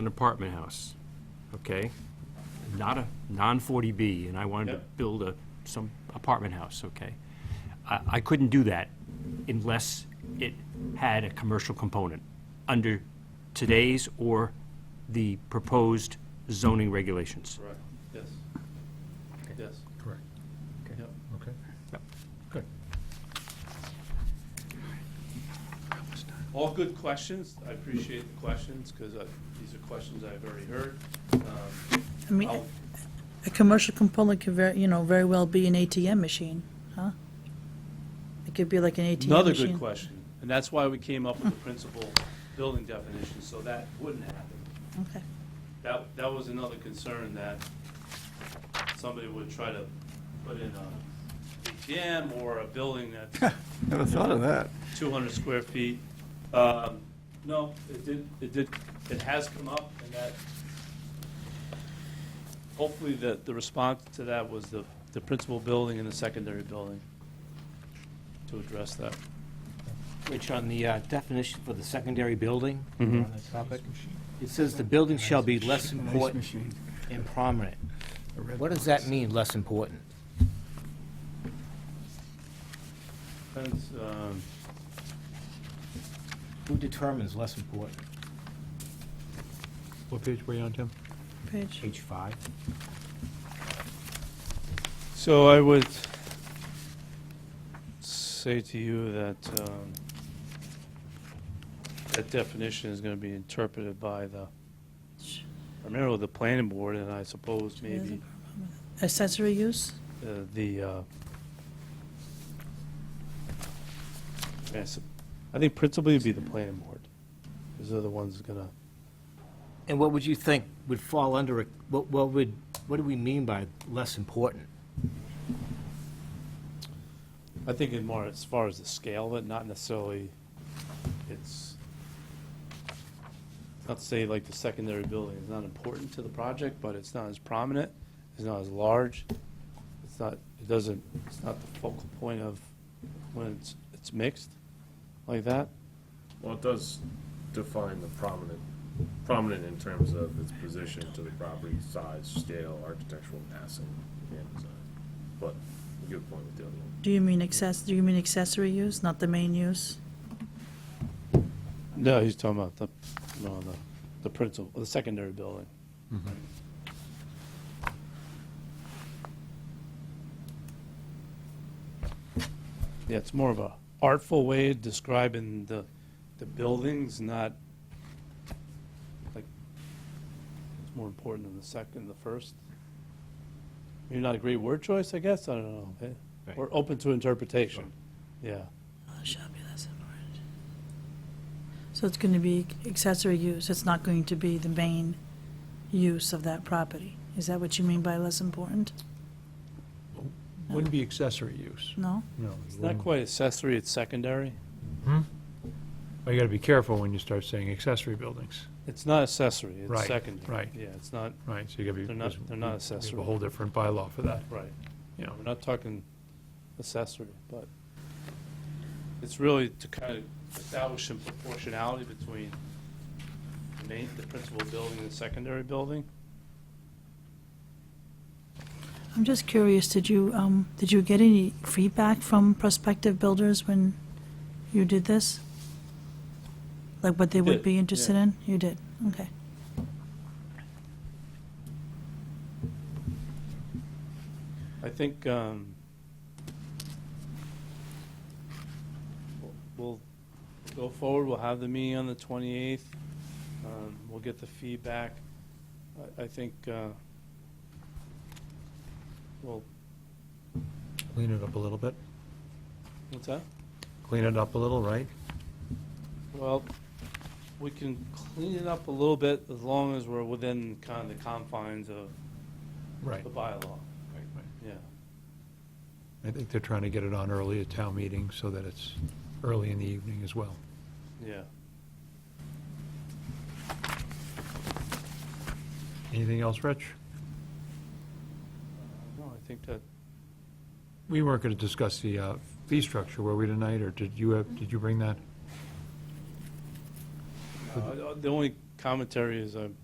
an apartment house, okay? Not a, non-40B, and I wanted to Yep. build a, some apartment house, okay? I, I couldn't do that unless it had a commercial component under today's or the proposed zoning regulations. Correct, yes. Yes, Correct. yep. Okay. Yep. Good. All good questions. I appreciate the questions, because these are questions I've already heard. Um, I mean, I'll- a commercial component could very, you know, very well be an ATM machine, huh? It could be like an ATM machine. Another good question, and that's why we came up with the principal building definition, so that wouldn't happen. Okay. That, that was another concern, that somebody would try to put in a ATM or a building that's Never thought of that. 200 square feet. Um, No, it did, it did, it has come up, and that, hopefully, the, the response to that was the, the principal building and the secondary building to address that. Which on the uh, definition for the secondary building, Mhm. on that topic, it says the building shall be Nice less important machine. and prominent. A red What does box. that mean, less important? Depends, um, Who determines less important? What page were you on, Tim? Page. Page five? So I would say to you that um, that definition is going to be interpreted by the, primarily the planning board, and I suppose maybe Accessory use? uh, the, uh, I sup- I think principally it'd be the planning board, because they're the ones that's gonna, And what would you think would fall under, a- what, what would, what do we mean by less important? I think in more as far as the scale of it, not necessarily, it's, not to say like the secondary building is not important to the project, but it's not as prominent, it's not as large, it's not, it doesn't, it's not the focal point of when it's, it's mixed like that. Well, it does define the prominent, prominent in terms of its position to the property, size, scale, architectural massing, and design. But, good point with the other one. Do you mean access, do you mean accessory use, not the main use? No, he's talking about the, no, the, the principal, the secondary building. Yeah, it's more of a artful way of describing the, the buildings, not like, it's more important than the second, the first. Maybe not a great word choice, I guess, I don't know. eh? Right. We're open to interpretation, yeah. Oh, it shall be less important. So it's going to be accessory use, it's not going to be the main use of that property. Is that what you mean by less important? Wouldn't be accessory use. No? No. It's not quite accessory, it's secondary. Well, you gotta be careful when you start saying accessory buildings, It's not accessory, it's Right, secondary. right. Yeah, it's not, right? So you gotta be. They're not- they're not we have accessory. A whole different bylaw for that, right, you know. we're not talking accessory, but it's really to kind of establish some proportionality between the main, the principal building and the secondary building. I'm just curious, did you, um, did you get any feedback from prospective builders when you did this? Like what they would did, be interested yeah. in? You did, okay. I think, um, we'll- we'll go forward, we'll have the meeting on the 28th, um, we'll get the feedback. I, I think, uh, well, Clean it up a little bit. what's that? Clean it up a little, right? Well, we can clean it up a little bit as long as we're within kind of the confines of Right. the bylaw, right. yeah. I think they're trying to get it on early at town meeting so that it's early in the evening as well. Yeah. Anything else, Rich? No, I think that, We weren't going to discuss the uh, fee structure, were we tonight, or did you, have? did you bring that? uh, the only commentary is I'm